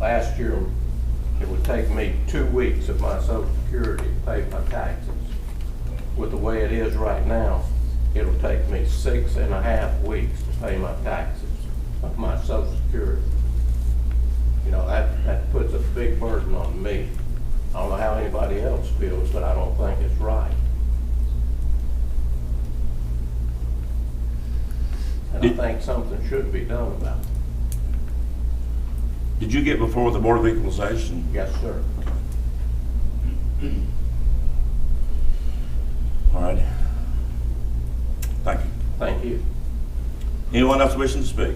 last year, it would take me two weeks of my social security to pay my taxes. With the way it is right now, it'll take me six and a half weeks to pay my taxes of my social security. You know, that, that puts a big burden on me. I don't know how anybody else feels, but I don't think it's right. And I Did- think something should be done about it. Did you get before the Board of Equalization? Yes, sir. All right. Thank you. Thank you. Anyone else wishing to speak?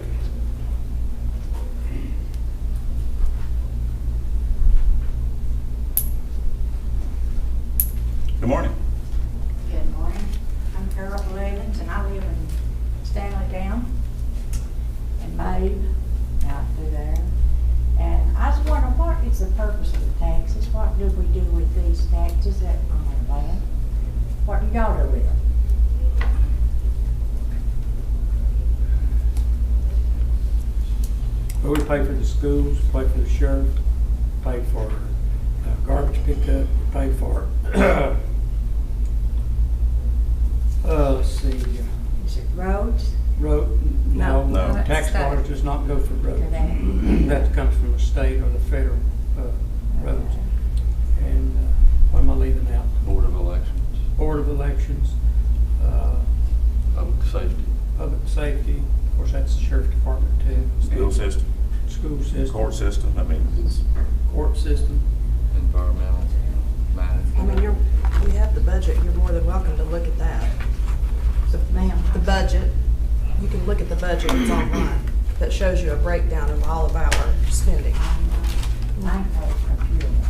Good morning. Good morning. I'm Carol Williams, and I live in Stanley Town in Mabe, out through there. And I was wondering, what is the purpose of the taxes? What do we do with these taxes that are on land? What do y'all do with them? Well, we pay for the schools, pay for the sheriff, pay for uh, garbage pickup, pay for, uh, let's see, uh, Is it roads? road, no, No. No. tax dollars does not go for Do roads. they? That comes from the state or the federal uh, roads. And uh, what am I leaving out? Board of Elections, Board of Elections, uh, Public Safety. public safety, of course, that's the sheriff department too. School system, School system, court system, I mean, it's, court system. Environmental I mean, Management. you're, we have the budget, you're more than welcome to look at that. So, Ma'am, The budget, you can look at the budget, it's online, that shows you a breakdown of all of our spending. I'm not a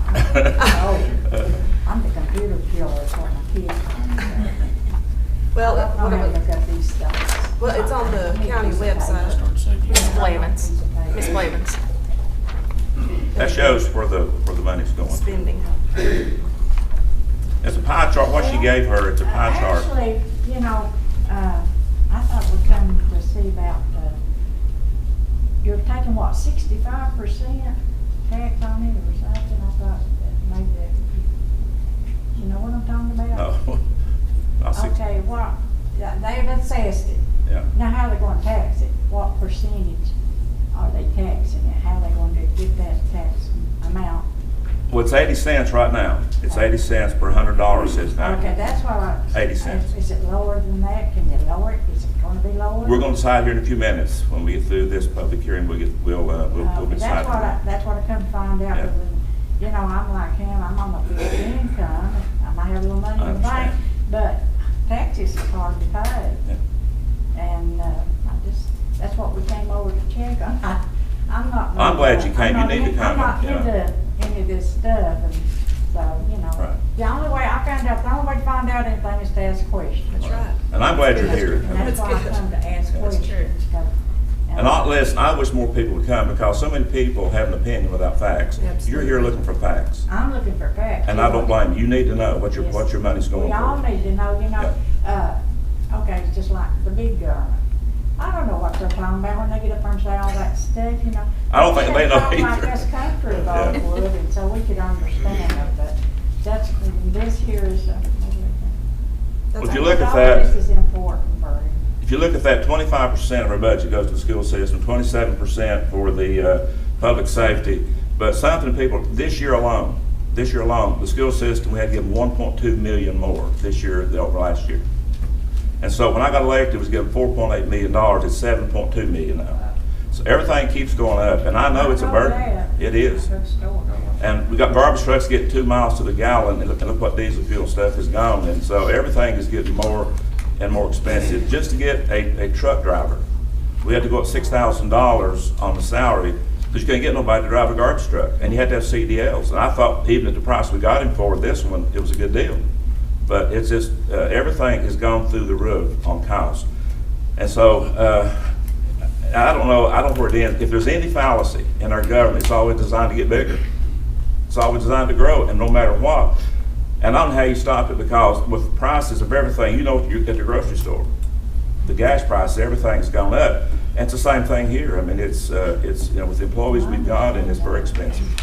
computer. I'm old. I'm the computer killer, that's what my kids call me. Well, I don't know how to look whatever- up these stuff. well, it's on the county website. Miss Blevins. Miss Blevins. that shows where the, where the money's going. Spending. It's a pie chart, what she gave her, it's a pie chart. Actually, you know, uh, I thought we come to see about, uh, you're taking what, sixty-five percent tax on it or something? I thought that maybe that, you know what I'm talking about? No. I see. Okay, what, yeah, they have assessed it. Yeah. Now, how they gonna tax it? What percentage are they taxing it? How they gonna do- get that tax amount? Well, it's eighty cents right now. It's eighty cents per hundred dollars, says now. Okay, that's what I. 80 cents. Is it lower than that? Can you lower it? Is it gonna be lower? We're gonna decide here in a few minutes, when we get through this public hearing, we'll get, we'll, uh, we'll, Uh, we'll decide. That's what I, that's what I come to find out, Yeah. but when, you know, I'm like him, I'm on a fixed income, I might have a little money in the bank, Understand. but taxes are hard to pay. Yeah. And, uh, I just, that's what we came over to check on, I, I'm not. I'm glad you came. You I'm not need to in- come and, I'm not yeah. into any of this stuff, and so, you Right. know, the only way I found out, the only way to find out anything is to ask questions. That's right. And I'm glad you're That's here. good. And that's That's why I good. come to ask That's true. questions. so, And I, listen, I wish more people would come, because so many people have an opinion without facts. You're here Absolutely. looking for facts, I'm looking for facts. and I don't blame you. You need to know what your, Yes. what your money's going We all for. need to know, you know, uh, okay, it's just like the big government. I don't know what they're talking about when they get up there and say all that stuff, you know. I don't think they know Talk Like either. this country of all Yeah. would, and so we could understand it, but that's, this here is. uh, That's Would you all. look at all that- This is important for him. If you look at that, twenty-five percent of our budget goes to the school system, twenty-seven percent for the, uh, public safety. But something people, this year alone, this year alone, the school system, we had to give one point two million more this year than over last year. And so when I got elected, it was given four point eight million dollars, it's seven point two million now. So everything keeps going up, and I know it's a burden. that. It is. Good story. And we got garbage trucks getting two miles to the gallon, and look, and look what diesel fuel stuff has gone, and so everything is getting more and more expensive. Just to get a, a truck driver, we had to go up six thousand dollars on the salary, because you couldn't get nobody to drive a garbage truck, and you had to have CDLs. And I thought even at the price we got him for this one, it was a good deal. But it's just, uh, everything has gone through the roof on cost. And so, uh, I don't know, I don't know where it ends. If there's any fallacy in our government, it's always designed to get bigger. It's always designed to grow, and no matter what. And I don't know how you stop it, because with the prices of everything, you know, you're at the grocery store, the gas prices, everything's gone up. And it's the same thing here. I mean, it's, uh, it's, you know, with the employees we've got, and it's very expensive.